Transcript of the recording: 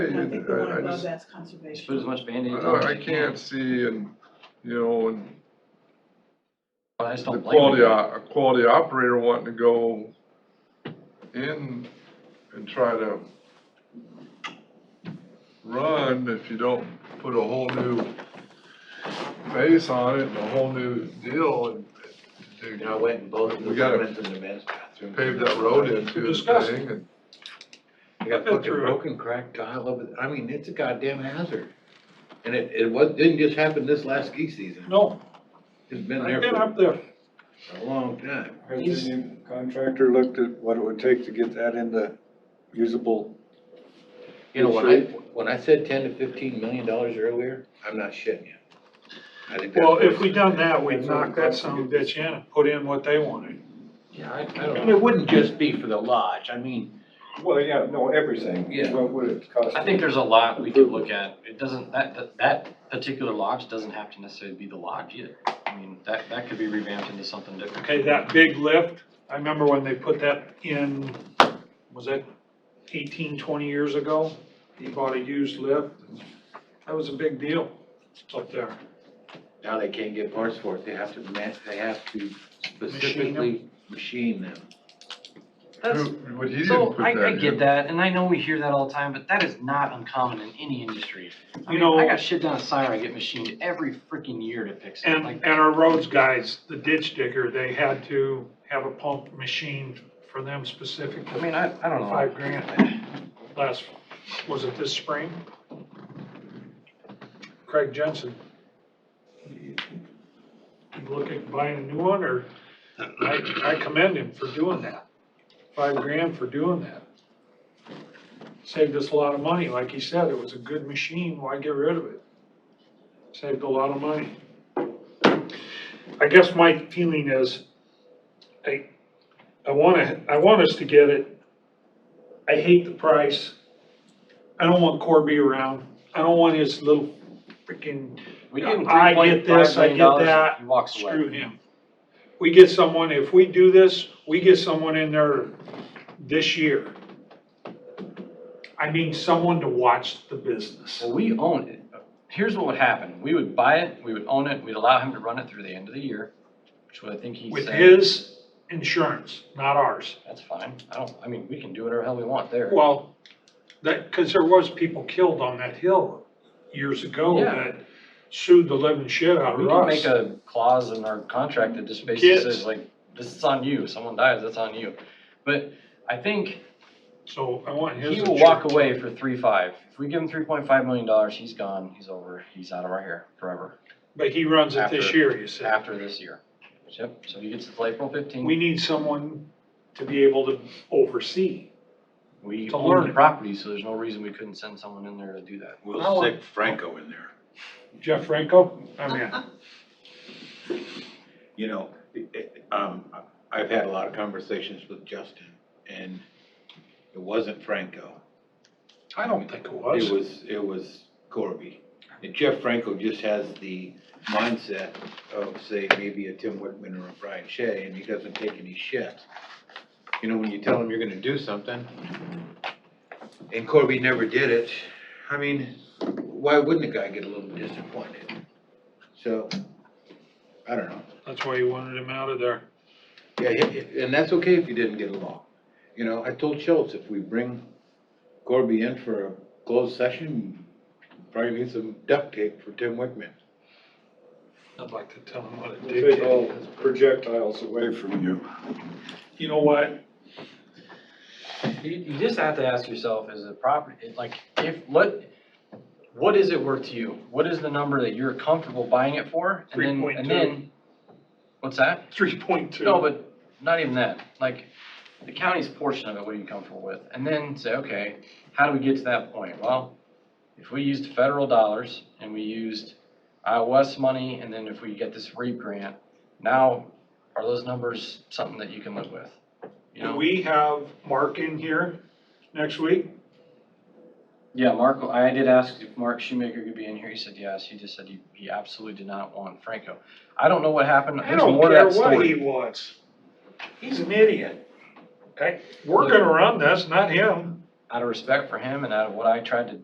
I think the I- one I above just- that's Just put as conservation. much Band-Aid I on. don't- I as you can. can't see and, you know, and I just the don't blame quality, you. o- a quality operator wanting to go in and try to run if you don't put a whole new face on it and a whole new deal and And I went and both of We them gotta went in the men's bathroom. pave that road into the Disgusting. thing and I got I've been fucking through it. broken cracked tile over, there. I mean, it's a goddamn hazard. And it, it was, didn't just happen this last ski season. No, It's been I've there been for up there. a long time. Has the new contractor looked at what it would take to get that into usable? You know, when I, when I said ten to fifteen million dollars earlier, I'm not shitting you. I think that's Well, what if we it's- done that, we'd knock that son of a bitch in and put in what they wanted. Yeah, I, I don't know. It wouldn't just be for the lodge, I mean. Well, yeah, no, everything. Yeah. What would it cost? I think there's a lot we could look at. It doesn't, that, that- that particular lodge doesn't have to necessarily be the lodge either. I mean, that, that could be revamped into something different. Okay, that big lift, I remember when they put that in, was that 18, 20 years ago? He bought a used lift. That was a big deal up there. Now they can't get parts for it, they have to ma- they have to them? specifically machine them. That's, who- but he didn't so put I, I in. get that, and I know we hear that all the time, but that is not uncommon in any industry. I You mean, I know- got shit down at Siren, I get machined every freaking year to fix it. And, Like, and our roads guys, the ditch digger, they had to have a pump machine for them I specifically. mean, I, I don't know. Five grand last, was it this spring? Craig Jensen. You look at buying a new one or, I, I commend him for doing that. Five grand for doing that. Saved us a lot of money. Like he said, it was a good machine. Why get rid of it? Saved a lot of money. I guess my feeling is, I, I wanna, I want us to get it. I hate the price. I don't want Corby around. I don't want his little freaking, We give him I three get point this, five I get million dollars, that, he walks away. screw him. We get someone, if we do this, we get someone in there this year. I mean, someone to watch the business. Well, we own it. Here's what would happen. We would buy it, we would own it, we'd allow him to run it through the end of the year, which would, I think he With said, his insurance, not ours. that's fine. I don't, I mean, we can do whatever the hell we want there. Well, that, because there was people killed on that hill years ago Yeah. that sued the living shit out We of can us. make a clause in our contract that just basically Kids. says like, this is on you, someone dies, that's on you. But I think So I want his he will walk insurance. away for three five. If we give him three point five million dollars, he's gone, he's over, he's out of our hair forever, But he runs it this After- year, you said. after this year. Yep, so he gets it till April fifteenth. We need someone to be able to oversee. We to own learn the it. property, so there's no reason we couldn't send someone in there to do I that. We'll want- stick Franco in there. Jeff Franco, I'm in. You know, it- it- um, I- I've had a lot of conversations with Justin and it wasn't Franco. I don't think it It was. was, it was Corby. And Jeff Franco just has the mindset of, say, maybe a Tim Whitman or a Brian Shea, and he doesn't take any shit. You know, when you tell him you're gonna do something, and Corby never did it, I mean, why wouldn't a guy get a little disappointed? So, I don't know. That's why you wanted him out of there. Yeah, yeah, yeah, and that's okay if you didn't get along. You know, I told Schultz, if we bring Corby in for a closed session, probably need some duct tape for Tim Wickman. I'd like to tell him what a Take dickhead. all projectiles away from you. You know what? You, you just have to ask yourself, is the property, it- like, if, let, what is it worth to you? What is the number that you're comfortable buying it for? And Three then, point and two, then, what's that? three point two. No, but not even that, like, the county's portion of it, what are you comfortable with? And then say, okay, how do we get to that point? Well, if we used federal dollars and we used Iowa West money, and then if we get this REAP grant, now are those numbers something that you can live with? You Do know? we have Mark in here next week? Yeah, Mark, I did ask if Mark Shoemaker could be in here. He said yes. He just said he, he absolutely did not want Franco. I don't know what happened. I There's don't more to care that what he story. wants. He's an idiot. Okay, we're gonna run this, not him. Out of respect for him and out of what I tried to